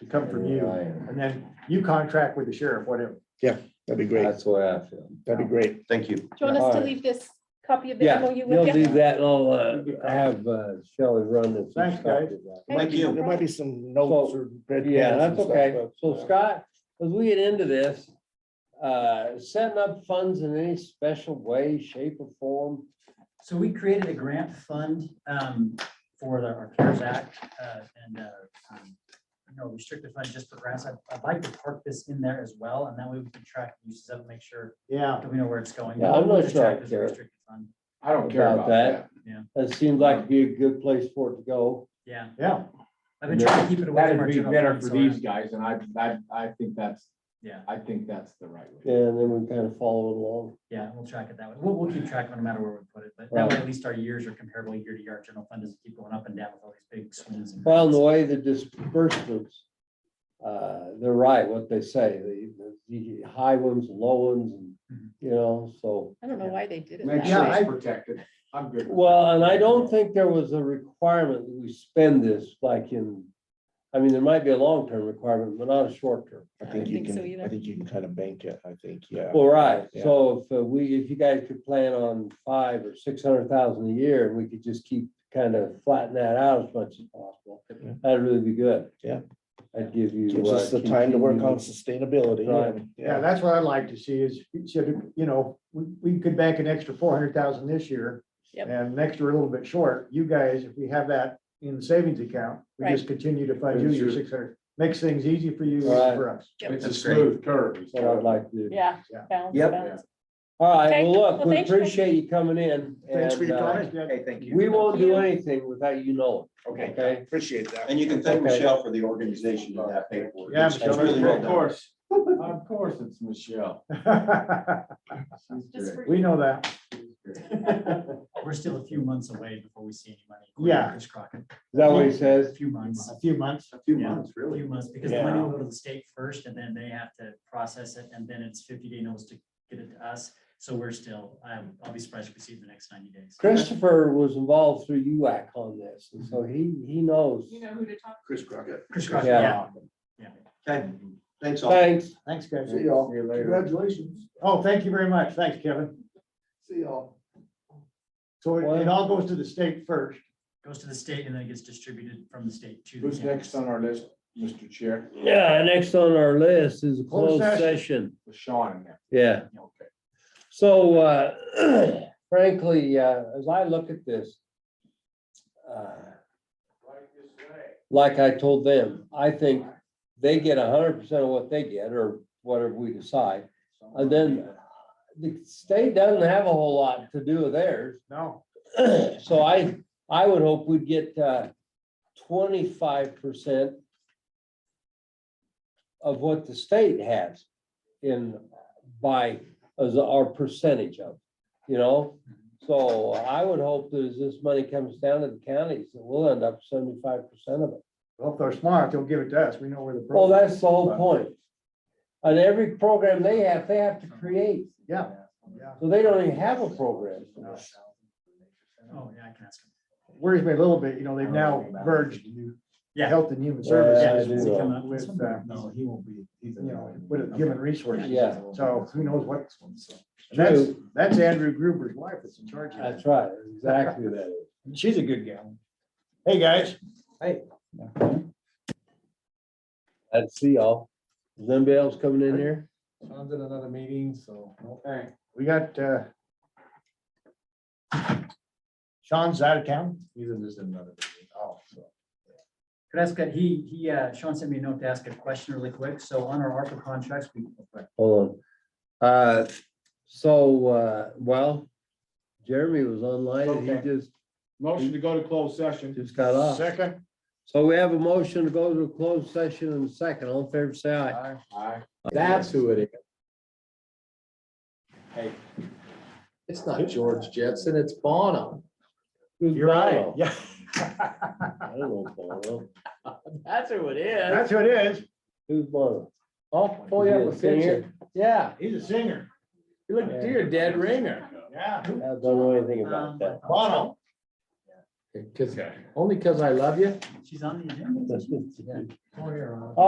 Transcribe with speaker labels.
Speaker 1: to come from you.
Speaker 2: Ryan.
Speaker 1: And then you contract with the sheriff, whatever.
Speaker 3: That'd be great.
Speaker 2: That's what I feel.
Speaker 3: That'd be great.
Speaker 2: Thank you.
Speaker 4: Do you want us to
Speaker 2: Alright.
Speaker 4: leave this copy of the
Speaker 2: Yeah,
Speaker 4: MOU
Speaker 2: you'll
Speaker 4: with
Speaker 2: do
Speaker 4: you?
Speaker 2: that. and I'll, uh, I have uh, Shelley run this. and
Speaker 1: Thanks,
Speaker 2: stuff
Speaker 1: guys.
Speaker 2: to that.
Speaker 4: Thank you.
Speaker 3: There might be some notes or. bread
Speaker 2: Yeah,
Speaker 3: crumbs and
Speaker 2: that's
Speaker 3: stuff,
Speaker 2: okay.
Speaker 3: but,
Speaker 2: So
Speaker 3: uh,
Speaker 2: Scott, as we get into this, uh, setting up funds in any special way, shape or form.
Speaker 5: So we created a grant fund um, for the our CARES Act uh, and uh, um, you know, restricted fund just for grants. I'd- I'd like to park this in there as well, and that way we can track uses up, make sure
Speaker 1: Yeah.
Speaker 5: that we know where it's going.
Speaker 2: Yeah, I'm not
Speaker 5: We'll just
Speaker 2: sure I
Speaker 5: track this
Speaker 2: care.
Speaker 5: restricted fund.
Speaker 6: I don't care about that.
Speaker 2: That seems like it'd be a good place for it to go.
Speaker 5: Yeah,
Speaker 1: Yeah,
Speaker 5: I've been trying to keep it away from our
Speaker 6: That'd be
Speaker 5: general.
Speaker 6: better
Speaker 5: fund,
Speaker 6: for
Speaker 5: so I-
Speaker 6: these guys, and I, I, I think that's,
Speaker 5: Yeah,
Speaker 6: I think that's the right way.
Speaker 2: And then we kind of follow along.
Speaker 5: yeah, we'll track it that way. We'll, we'll keep track no matter where we put it, but that way at least our years are comparable year to year. Our General fund doesn't keep going up and down with all these big swings. and
Speaker 2: Well, and the
Speaker 5: grants.
Speaker 2: way the disbursements, uh, they're right, what they say, the, the high ones, low ones, and, you know, so.
Speaker 4: I don't know why they did it
Speaker 6: Make
Speaker 4: that
Speaker 6: sure
Speaker 4: way.
Speaker 6: it's protected. I'm good. with
Speaker 2: Well, and I
Speaker 6: that.
Speaker 2: don't think there was a requirement that we spend this like in, I mean, there might be a long-term requirement, but not a short-term.
Speaker 3: I
Speaker 4: I
Speaker 3: think
Speaker 4: don't
Speaker 3: you
Speaker 4: think so
Speaker 3: can, I
Speaker 4: either.
Speaker 3: think you can kind of bank it, I think, yeah.
Speaker 2: Well, right,
Speaker 3: Yeah.
Speaker 2: so if uh, we, if you guys could plan on five or six hundred thousand a year, and we could just keep kind of flatten that out as much as possible,
Speaker 3: Yeah.
Speaker 2: that'd really be good.
Speaker 3: Yeah.
Speaker 2: I'd give you.
Speaker 3: Gives us
Speaker 2: uh,
Speaker 3: the time to work on
Speaker 2: continued-
Speaker 3: sustainability.
Speaker 2: Right.
Speaker 3: and-
Speaker 1: yeah, that's what I'd like to see is, should, you know, we, we could bank an extra four hundred thousand this year.
Speaker 4: Yep.
Speaker 1: And next year a little bit short. You guys, if we have that in the savings account, we just continue to fund you your six hundred. Makes things easy for you and for us.
Speaker 4: Yep.
Speaker 6: It's a
Speaker 5: That's great.
Speaker 6: smooth curve. is
Speaker 2: That's What I'd
Speaker 6: what I-
Speaker 2: like to do.
Speaker 4: Yeah.
Speaker 1: Yeah.
Speaker 4: balance,
Speaker 2: Yep.
Speaker 4: balance.
Speaker 2: All right,
Speaker 4: Okay,
Speaker 2: well, look,
Speaker 4: well,
Speaker 2: we
Speaker 4: thanks for-
Speaker 2: appreciate you coming in.
Speaker 3: Thanks for
Speaker 2: and,
Speaker 3: your
Speaker 2: uh,
Speaker 3: time.
Speaker 1: Hey, thank
Speaker 2: We won't do
Speaker 4: you.
Speaker 2: anything without you knowing, okay?
Speaker 3: Appreciate that.
Speaker 7: And you can thank
Speaker 2: Okay.
Speaker 7: Michelle for the organization of that paperwork.
Speaker 1: Yeah,
Speaker 7: It's
Speaker 1: Michelle,
Speaker 7: really well
Speaker 6: Of
Speaker 7: done.
Speaker 6: course, of course, it's Michelle. She's
Speaker 4: Just
Speaker 6: great.
Speaker 4: for-
Speaker 1: We know that.
Speaker 6: She's great.
Speaker 5: We're still a few months away before we see any money.
Speaker 1: Yeah.
Speaker 5: Chris Crockett,
Speaker 2: Is that what he says?
Speaker 5: a few months.
Speaker 1: A few months.
Speaker 6: A few
Speaker 5: Yeah.
Speaker 6: months,
Speaker 5: A
Speaker 6: really.
Speaker 5: few months, because the money will go to the state first, and then they have to process it, and then it's fifty day notice to get it to us. So we're still, I'm, I'll be surprised if we see it in the next ninety days.
Speaker 2: Christopher was involved through UAC on this, and so he, he knows.
Speaker 4: You know who to talk
Speaker 7: Chris Crockett.
Speaker 5: Chris Crockett,
Speaker 2: Yeah.
Speaker 5: yeah,
Speaker 7: Okay, thanks all.
Speaker 2: Thanks.
Speaker 1: Thanks, guys.
Speaker 6: See y'all. See you later.
Speaker 1: Congratulations. Oh, thank you very much. Thanks, Kevin. See y'all. So it it all goes to the state first.
Speaker 5: goes to the state and then it gets distributed from the state to. the
Speaker 6: Who's
Speaker 5: campus.
Speaker 6: next on our list, Mr. Chair?
Speaker 2: Yeah, next on our list is a
Speaker 1: Closed
Speaker 2: closed session.
Speaker 6: Sean in there.
Speaker 2: Yeah.
Speaker 6: Okay.
Speaker 2: So uh, frankly, uh, as I look at this, uh, like I told them, I think they get hundred percent of what they get or whatever we decide. And then the state doesn't have a whole lot to do with theirs.
Speaker 1: No,
Speaker 2: So I, I would hope we'd get uh, twenty-five percent of what the state has in, by, as our percentage of, you know? So I would hope that as this money comes down to the counties, that we'll end up seventy-five percent of it.
Speaker 1: well, if they're smart, they'll give it to us. We know where the.
Speaker 2: Well,
Speaker 1: problem-
Speaker 2: that's the whole point. And every program they have, they have to create,
Speaker 1: Yeah. Yeah.
Speaker 2: so they don't even have a program.
Speaker 5: Oh, yeah, I can ask him.
Speaker 1: worries me a little bit, you know, they've now merged
Speaker 5: Yeah.
Speaker 1: health and human
Speaker 2: Yeah, I
Speaker 1: services
Speaker 2: do
Speaker 5: Is he coming up
Speaker 1: with,
Speaker 5: with,
Speaker 1: uh,
Speaker 5: no, he won't be.
Speaker 1: you know, with a given resources.
Speaker 2: Yeah.
Speaker 1: So who knows what, and that's, that's Andrew Gruber's wife that's in charge of that.
Speaker 2: That's right, exactly that.
Speaker 1: She's a good gal. Hey, guys.
Speaker 2: I'd see y'all. Is anybody else coming in here?
Speaker 6: Sean's in another meeting, so.
Speaker 1: Okay, we got, uh, Sean's out of town.
Speaker 6: He's in just another meeting. Oh, so.
Speaker 5: Could I ask, that- he, he, uh, Sean sent me a note to ask a question really quick. So on our ARPA contracts, we,
Speaker 2: Hold on. Uh, so, uh, well, Jeremy was online and he
Speaker 6: Okay.
Speaker 2: just,
Speaker 6: Motion to go to closed session.
Speaker 2: just got off.
Speaker 1: Second.
Speaker 2: So we have a motion to go to a closed session in a second. All in favor, say aye.
Speaker 6: Aye.
Speaker 2: That's who it is.
Speaker 6: Hey.
Speaker 3: It's not George Jetson, it's Bono.
Speaker 1: You're right. Yeah,
Speaker 2: I don't know Bono.
Speaker 3: That's who it is.
Speaker 1: that's who it is.
Speaker 2: Who's Bono?
Speaker 3: I'll pull you up a
Speaker 2: Is he a singer?
Speaker 3: picture. Yeah,
Speaker 1: He's a singer.
Speaker 3: you look, you're a dead ringer.
Speaker 1: Yeah.
Speaker 2: I don't know anything
Speaker 4: Um,
Speaker 2: about that.
Speaker 1: Bono.
Speaker 5: um,
Speaker 3: Cause, only cause I love you.
Speaker 5: she's on the agenda.